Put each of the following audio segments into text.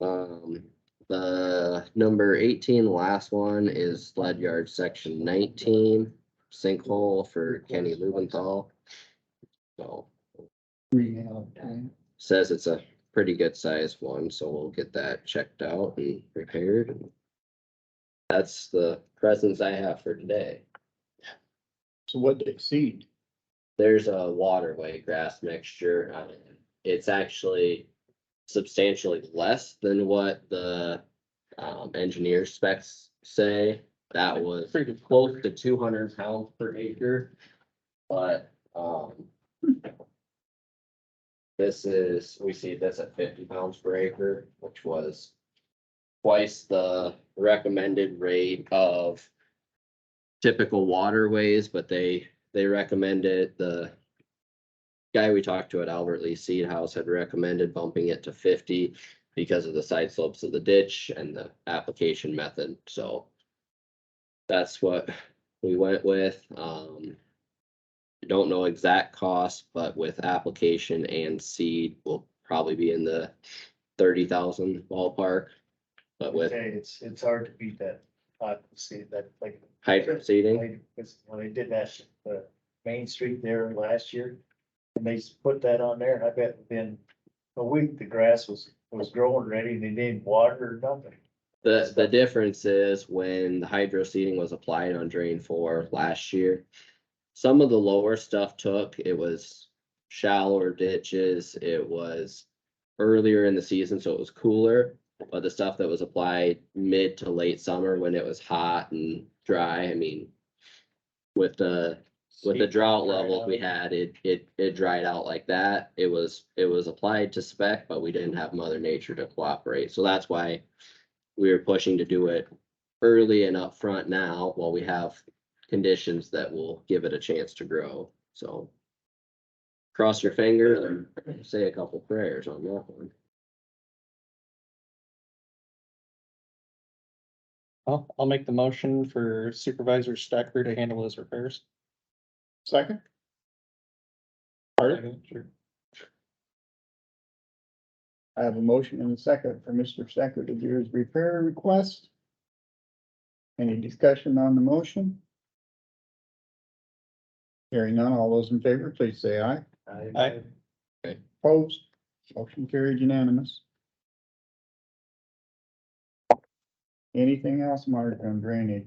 Um, the number eighteen, last one is sled yard section nineteen, sinkhole for Kenny Lubenthal. So, says it's a pretty good sized one, so we'll get that checked out and repaired. That's the presents I have for today. So what they seed? There's a waterway grass mixture. uh, It's actually substantially less than what the um, engineer specs say. That was Pretty good. close to two hundred pounds per acre, but, um, this is, we see this at fifty pounds per acre, which was twice the recommended rate of typical waterways, but they, they recommended the guy we talked to at Albert Lee Seed House had recommended bumping it to fifty because of the side slopes of the ditch and the application method, so that's what we went with. Um, I don't know exact cost, but with application and seed will probably be in the thirty thousand ballpark. But with Say It's, it's hard to beat that, uh, see that, like, hydro seeding, like, this- when they did that, the Main Street there last year. And they s- put that on there, and I bet within a week, the grass was, was growing ready, and they didn't water or nothing. the, the difference is when the hydro seeding was applied on drain four last year. Some of the lower stuff took, it was shallower ditches, it was earlier in the season, so it was cooler. But the stuff that was applied mid to late summer when it was hot and dry, I mean. With the, with the drought dried levels out. we had, it, it, it dried out like that. It was, it was applied to spec, but we didn't have mother nature to cooperate, so that's why. We were pushing to do it early and upfront now, while we have conditions that will give it a chance to grow, so. Cross your finger and say a couple prayers on that one. Well, I'll make the motion for Supervisor Stacker to handle those repairs. Second? Pardon? Sure. I have a motion and a second for Mr. Stacker to do his repair request. Any discussion on the motion? Hearing none, all those in favor, please say aye. Aye. Opposed, motion carried unanimous. Anything else, Mark, on drainage?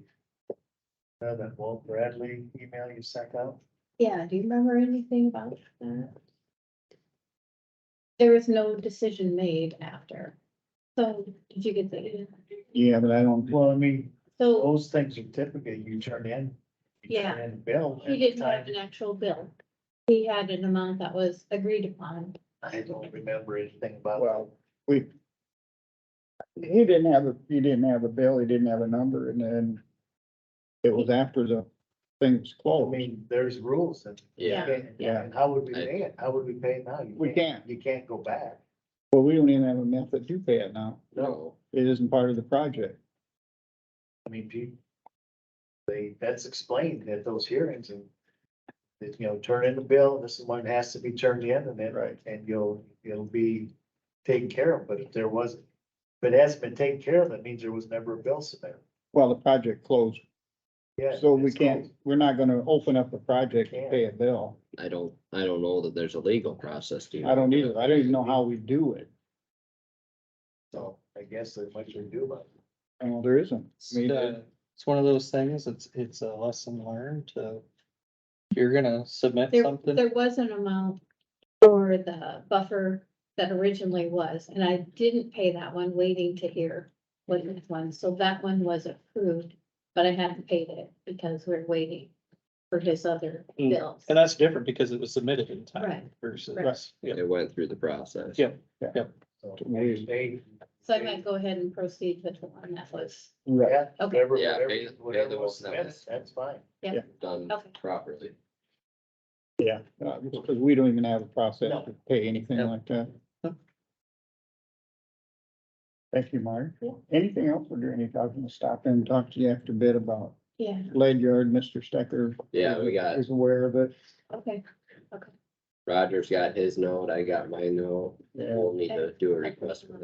Now that Walt Bradley email you sent out, Yeah, do you remember anything about that? There was no decision made after. So did you get the, Yeah, but I don't, well, I mean, so those things are typically you turn in. you turn Yeah. in bill. he at the didn't have time. an actual bill. He had an amount that was agreed upon. I don't remember anything about. well, we. He didn't have a, he didn't have a bill, he didn't have a number, and then it was after the thing was Well, Oh, I closed. mean, there's rules and. Yeah. And- Yeah. And how would we I- pay it? How would we pay it now? You We can't. You can't go back. Well, we don't even have a method to pay it now. No, It isn't part of the project. I mean, people. They, that's explained at those hearings and. that, you know, turn in the bill, this is when it has to be turned in and then, Right. and you'll, it'll be taken care of, but if there wasn't. If it hasn't been taken care of, that means there was never a bill submitted. Well, the project closed, Yeah. so we it's can't, closed. we're not gonna open up the project to pay a bill. I don't, I don't know that there's a legal process to. I don't either. I don't even know how we do it. So I guess there's much we can do about it. Well, there isn't. I mean, Uh, It's one of those things, it's, it's a lesson learned to, if you're gonna submit There, something, there was an amount for the buffer that originally was, and I didn't pay that one, waiting to hear what this one, so that one was approved, but I hadn't paid it because we're waiting for his other Mm. bills. and that's different because it was submitted in time Right. versus. Right. yeah. It went through the process. Yeah. So We- they- So I might go ahead and proceed with the one that was, Right, yeah, Okay. whatever- Yeah, whatever- pay the- pay the whatever ones was that submitted, was- That's fine. Done Okay. properly. yeah, uh, because we don't even have a process to pay anything No. like that. No. Thank you, Mark. Yeah. Anything else or do any, I was gonna stop in and talk to you after a bit about yeah, lead yard, Mr. Stecker. Yeah, we got- Is aware of it. okay, Roger's got his note, I got my note. Yeah. We'll need to do a request for